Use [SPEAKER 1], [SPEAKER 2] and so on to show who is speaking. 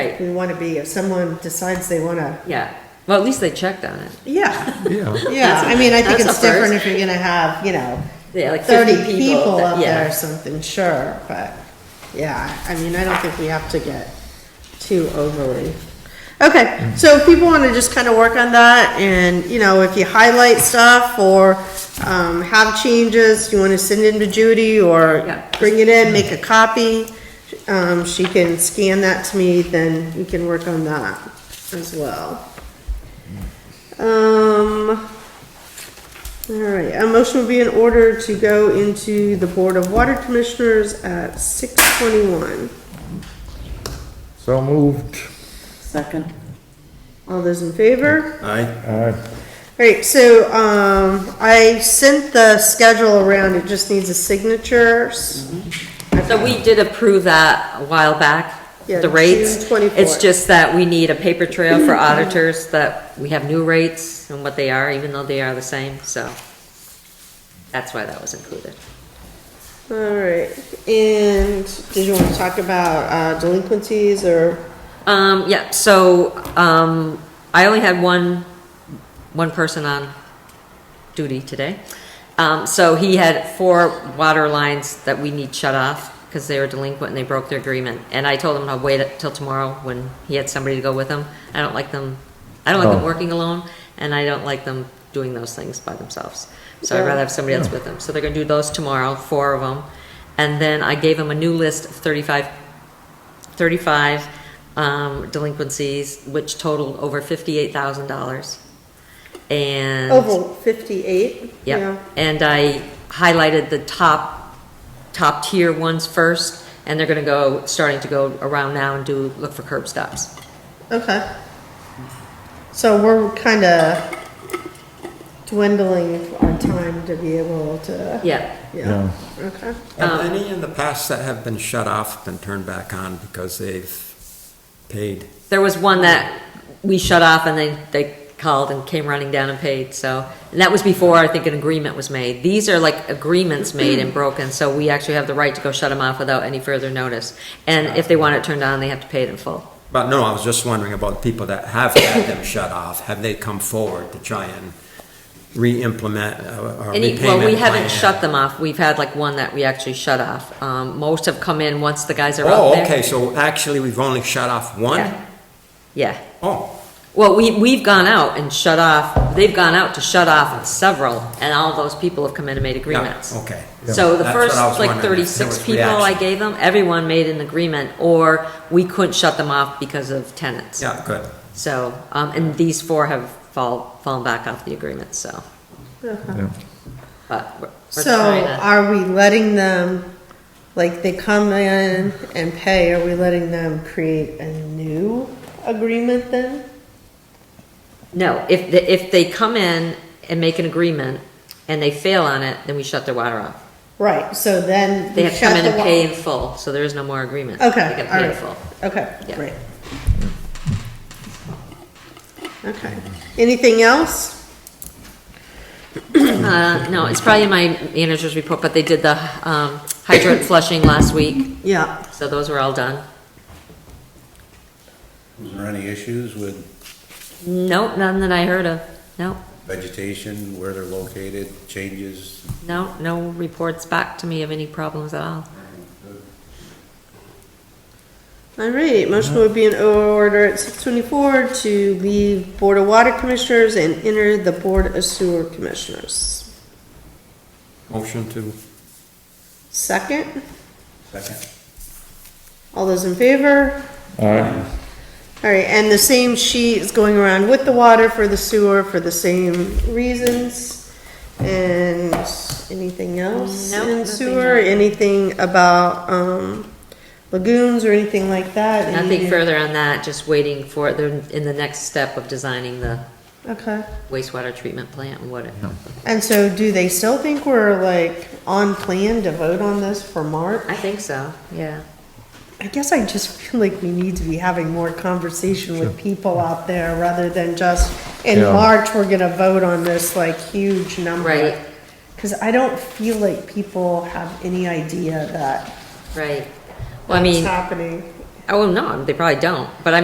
[SPEAKER 1] Right.
[SPEAKER 2] We want to be, if someone decides they want to,
[SPEAKER 1] Yeah, well, at least they checked on it.
[SPEAKER 2] yeah,
[SPEAKER 3] Yeah,
[SPEAKER 2] yeah, I mean, I think
[SPEAKER 1] That's a
[SPEAKER 2] it's different if
[SPEAKER 1] first.
[SPEAKER 2] you're gonna have, you know,
[SPEAKER 1] Yeah, like 50
[SPEAKER 2] thirty people
[SPEAKER 1] that-
[SPEAKER 2] up
[SPEAKER 1] yeah.
[SPEAKER 2] there or something, sure, but, yeah, I mean, I don't think we have to get too overly. Okay, so if people want to just kind of work on that, and, you know, if you highlight stuff or, um, have changes, you want to send in to Judy,
[SPEAKER 1] Yeah.
[SPEAKER 2] or bring it in, make a copy, um, she can scan that to me, then we can work on that as well. Um, all right, a motion would be in order to go into the Board of Water Commissioners at six twenty-one.
[SPEAKER 3] so moved.
[SPEAKER 4] Second.
[SPEAKER 2] All those in favor?
[SPEAKER 5] Aye.
[SPEAKER 3] Aye.
[SPEAKER 2] All right, so, um, I sent the schedule around, it just needs a signature.
[SPEAKER 1] So we did approve that a while back,
[SPEAKER 2] Yeah,
[SPEAKER 1] the rates.
[SPEAKER 2] June 24.
[SPEAKER 1] It's just that we need a paper trail for auditors that we have new rates and what they are, even though they are the same, so. That's why that was included.
[SPEAKER 2] All right, and did you want to talk about, uh, delinquencies or?
[SPEAKER 1] Um, yeah, so, um, I only had one, one person on duty today. Um, so he had four water lines that we need shut off because they were delinquent and they broke their agreement. And I told him to wait till tomorrow when he had somebody to go with him. I don't like them, I don't like them
[SPEAKER 3] Oh.
[SPEAKER 1] working alone and I don't like them doing those things by themselves. So I'd
[SPEAKER 2] Yeah.
[SPEAKER 1] rather have somebody else with them. So they're gonna do those tomorrow, four of them. And then I gave him a new list of thirty-five 35 um, delinquencies, which totaled over $58,000. And.
[SPEAKER 2] Oval fifty-eight?
[SPEAKER 1] Yep. And I highlighted the top, top tier ones first, and they're gonna go, starting to go around now and do, look for curb stops.
[SPEAKER 2] Okay. So we're kind of dwindling our time to be able to,
[SPEAKER 1] Yeah.
[SPEAKER 2] yeah,
[SPEAKER 3] Yeah,
[SPEAKER 2] okay.
[SPEAKER 1] Um,
[SPEAKER 5] Have any in the past that have been shut off been turned back on because they've paid?
[SPEAKER 1] There was one that we shut off and they, they called and came running down and paid, so. And that was before, I think, an agreement was made. These are like agreements made and broken, so we actually have the right to go shut them off without any further notice. And if they want it turned on, they have to pay it in full.
[SPEAKER 5] But no, I was just wondering about people that have had them shut off. Have they come forward to try and re-implement a a
[SPEAKER 1] Any,
[SPEAKER 5] repayment
[SPEAKER 1] well, we
[SPEAKER 5] plan?
[SPEAKER 1] haven't shut them off. We've had like one that we actually shut off. Um, most have come in once the guys are out
[SPEAKER 5] Oh,
[SPEAKER 1] there.
[SPEAKER 5] okay, so actually we've only shut off one?
[SPEAKER 1] Yeah. Yeah.
[SPEAKER 5] Oh,
[SPEAKER 1] Well, we, we've gone out and shut off, they've gone out to shut off several, and all those people have come in and made
[SPEAKER 5] yeah, Oh.
[SPEAKER 1] agreements.
[SPEAKER 5] okay.
[SPEAKER 1] So the
[SPEAKER 5] That's what I
[SPEAKER 1] first,
[SPEAKER 5] was
[SPEAKER 1] like
[SPEAKER 5] wondering, if there
[SPEAKER 1] thirty-six
[SPEAKER 5] was
[SPEAKER 1] people I
[SPEAKER 5] reaction.
[SPEAKER 1] gave them, everyone made an agreement, or we couldn't shut them off because of tenants.
[SPEAKER 5] Yeah, good.
[SPEAKER 1] So, um, and these four have fall, fallen back off the agreement, so,
[SPEAKER 3] yeah.
[SPEAKER 1] but we're we're
[SPEAKER 2] So uh,
[SPEAKER 1] trying to.
[SPEAKER 2] are we letting them, like, they come in and pay, are we letting them create a new agreement then?
[SPEAKER 1] No, if, the- if they come in and make an agreement and they fail on it, then we shut their water off.
[SPEAKER 2] Right, so then.
[SPEAKER 1] They
[SPEAKER 2] we
[SPEAKER 1] have to come
[SPEAKER 2] shut
[SPEAKER 1] in
[SPEAKER 2] the
[SPEAKER 1] and
[SPEAKER 2] wa-
[SPEAKER 1] pay in full, so there is no more agreement. They
[SPEAKER 2] Okay,
[SPEAKER 1] get
[SPEAKER 2] all
[SPEAKER 1] paid in
[SPEAKER 2] right.
[SPEAKER 1] full.
[SPEAKER 2] Okay,
[SPEAKER 1] Yeah.
[SPEAKER 2] great. Okay, anything else?
[SPEAKER 1] Uh, no, it's probably in my manager's report, but they did the, um, hydrant flushing last week,
[SPEAKER 2] Yeah,
[SPEAKER 1] so those were all done.
[SPEAKER 6] Was there any issues with
[SPEAKER 1] Nope, none that I heard of. Nope,
[SPEAKER 6] vegetation, where they're located, changes?
[SPEAKER 1] no, no reports back to me of any problems at all.
[SPEAKER 2] all right, motion would be in order at six twenty-four to leave Board of Water Commissioners and enter the Board of Sewer Commissioners.
[SPEAKER 5] Motion to,
[SPEAKER 2] Second,
[SPEAKER 6] Second.
[SPEAKER 2] all those in favor?
[SPEAKER 3] Aye.
[SPEAKER 2] All right, and the same sheet is going around with the water for the sewer for the same reasons? And anything else
[SPEAKER 1] Nope,
[SPEAKER 2] in
[SPEAKER 1] nothing
[SPEAKER 2] sewer?
[SPEAKER 1] else.
[SPEAKER 2] Anything about, um, lagoons or anything like that?
[SPEAKER 1] Nothing
[SPEAKER 2] Any-
[SPEAKER 1] further on that, just waiting for, they're in the next step of designing the
[SPEAKER 2] Okay,
[SPEAKER 1] wastewater treatment plant and what it,
[SPEAKER 2] and so do they still think we're like on plan to vote on this for March?
[SPEAKER 1] I think so, yeah.
[SPEAKER 2] I guess I just feel like we need to be having more conversation with people out there rather than just, in
[SPEAKER 3] Yeah.
[SPEAKER 2] March, we're gonna vote on this like huge number.
[SPEAKER 1] Right.
[SPEAKER 2] Cause I don't feel like people have any idea that
[SPEAKER 1] Right. Well, I
[SPEAKER 2] that's
[SPEAKER 1] mean,
[SPEAKER 2] happening.
[SPEAKER 1] oh, no, they probably don't, but I